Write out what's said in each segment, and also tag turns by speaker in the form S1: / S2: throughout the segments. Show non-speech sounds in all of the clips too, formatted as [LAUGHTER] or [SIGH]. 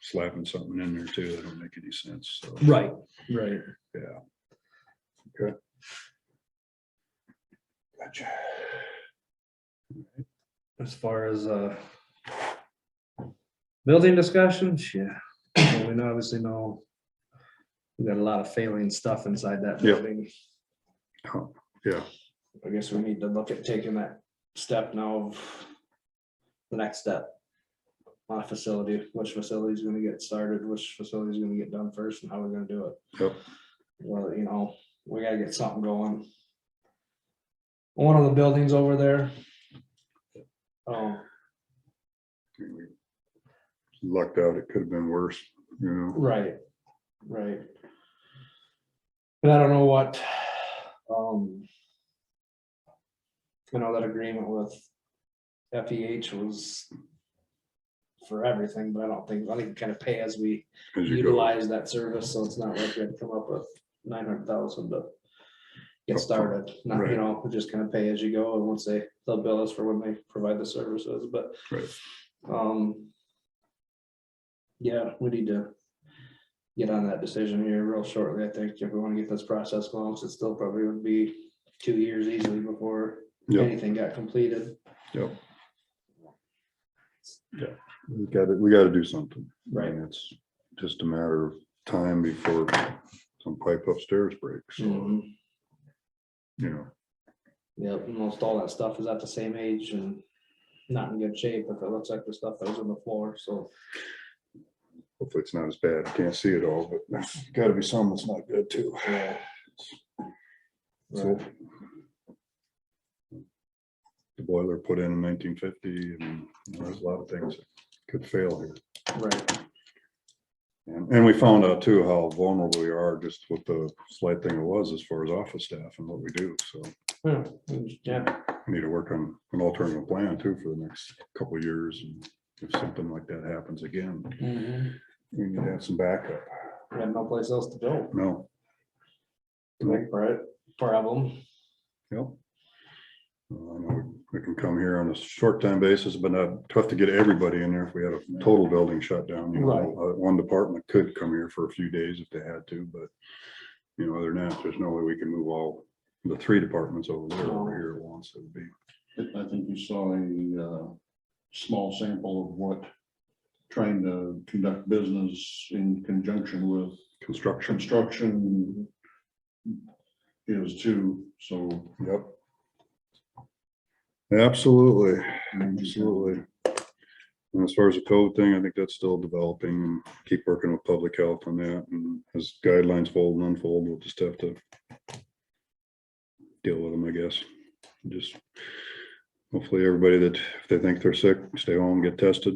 S1: slapping something in there too, that don't make any sense, so.
S2: Right, right.
S1: Gotcha.
S2: As far as, uh. Building discussions, yeah, Well, we know- obviously know. We got a lot of failing stuff inside that
S1: Yeah.
S2: building.
S1: Oh, yeah.
S2: I guess we need to look at taking that step now. of The next step. On a facility, which facility is gonna get started, which facility is gonna get done first and how we're gonna do it.
S1: Yep.
S2: Well, you know, we gotta get something going. One of the buildings over there. Oh,
S1: we Lucked out, it could have been worse, you know,
S2: Right, right. And I don't know what, um. You know, that agreement with FEH was. For everything, but I don't think, I think kind of pay as we
S1: as you go.
S2: utilize that service, so it's not like we had to come up with nine hundred thousand to. Get
S1: Upfront,
S2: started, not, you
S1: right.
S2: know, just kind of pay as you go, and once they, they'll bill us for when they provide the services, but.
S1: Right.
S2: Um. Yeah, we need to get on that decision here real shortly, I think, if we want to get this process going, so it still probably would be two years easily before
S1: Yep,
S2: anything got completed.
S1: yep. Yeah, we gotta, we gotta do something.
S2: Right.
S1: And It's just a matter of time before some pipe upstairs breaks, so,
S2: Mhm.
S1: you know,
S2: Yep, and most all that stuff is at the same age and not in good shape, if it looks like the stuff that was on the floor, so.
S1: hopefully it's not as bad, I can't see it all, but there's gotta be some that's not good too.
S2: yeah.
S1: So-
S2: Right.
S1: The boiler put in in nineteen fifty, and you know, there's a lot of things that could fail here.
S2: Right,
S1: And, and we found out too how vulnerable we are just with the slight thing it was as far as office staff and what we do, so.
S2: Yeah, and- Hmm, yeah,
S1: we Need to work on an alternative plan too for the next couple of years, and if something like that happens again,
S2: we
S1: we need to have some backup,
S2: have no place else to go,
S1: no,
S2: Right, right, problem.
S1: yep. Uh, I know We can come here on a short time basis, but not tough to get everybody in there if we had a total building shutdown, you
S2: Right.
S1: know, uh, one department could come here for a few days if they had to, but. You know, other than that, there's no way we can move all the three departments over there over here at once, it would be.
S3: I think you saw a uh, small sample of what trying to conduct business in conjunction with
S1: Construction,
S3: construction is too, so.
S1: yep. Absolutely,
S3: Absolutely.
S1: absolutely. And as far as the code thing, I think that's still developing, and keep working with public health on that, and as guidelines fold and unfold, we'll just have to. Deal with them, I guess, just. Hopefully, everybody that, if they think they're sick, stay home, get tested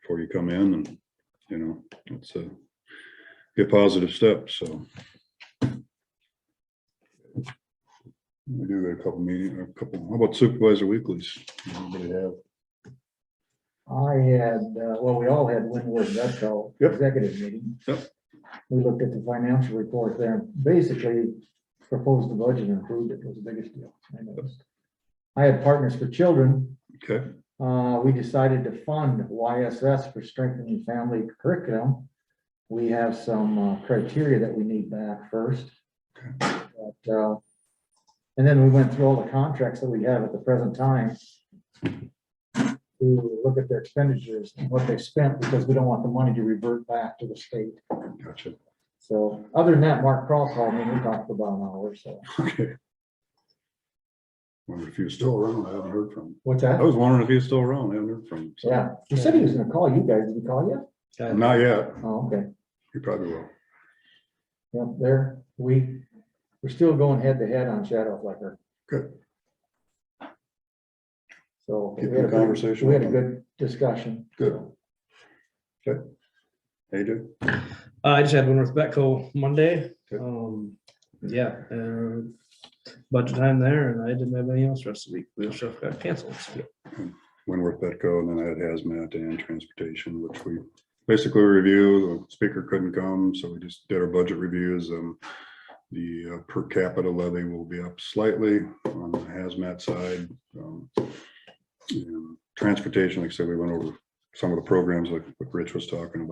S1: before you come in, and, you know, it's a. Be a positive step, so. We do got a couple meeting, a couple, how about supervisor weeklies? Anybody have
S4: I had, uh, well, we all had Winward Vetco
S1: Yep.
S4: executive meeting.
S1: Yep.
S4: We looked at the financial report there, and basically proposed the budget and approved it was the biggest deal. I noticed. I had Partners for Children,
S1: Okay,
S4: uh, we decided to fund YSS for strengthening family curriculum. We have some uh, criteria that we need back first. But, uh, And then we went through all the contracts that we have at the present time to look at their expenditures and what they spent, because we don't want the money to revert back to the state.
S1: gotcha. [LAUGHS]
S4: So, other than that, Mark Cross called me, and we talked for about an hour, so.
S1: Okay. Wonder if he was still around. I haven't heard from him.
S4: What's
S1: I was wondering if he was still around. I haven't heard from him. so-
S4: Yeah, he said he was gonna call you guys, did he call you?
S1: Not yet.
S4: Oh, okay.
S1: He probably will.
S4: Yep, there, we, we're still going head to head on Shadow Flicker.
S1: Good.
S4: So. we
S1: Keep
S4: had
S1: the
S4: a-
S1: conversation
S4: We had a
S1: open.
S4: good discussion.
S1: Good. Good. Hey, dude.
S2: Uh, I just had one with Betco Monday.
S1: Okay.
S2: Um, yeah, uh, budget time there and I didn't have anything else the rest of the week. Wheel shift got canceled. so-
S1: Winworth Petco and then I had hazmat and transportation, which we basically review. The speaker couldn't come, so we just did our budget reviews. Um, the uh, per capita levy will be up slightly on the hazmat side. Um, and Transportation, like I said, we went over some of the programs like like Rich was talking about.